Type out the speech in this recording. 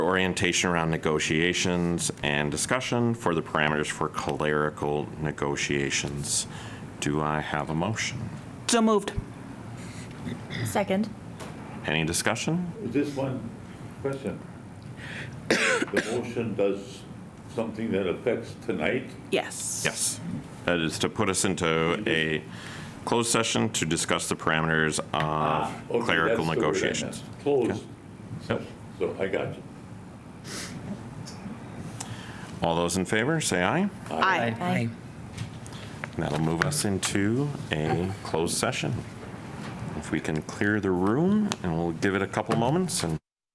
orientation around negotiations and discussion for the parameters for clerical negotiations. Do I have a motion? So moved. Second. Any discussion? Just one question. The motion does something that affects tonight? Yes. Yes. That is to put us into a closed session to discuss the parameters Ah, Okay, of Ah, clerical that's the word I meant. negotiations. Closed. So I got you. All those in favor, say aye. Aye. Aye. And that'll move us into a closed session. If we can clear the room, and we'll give it a couple moments and.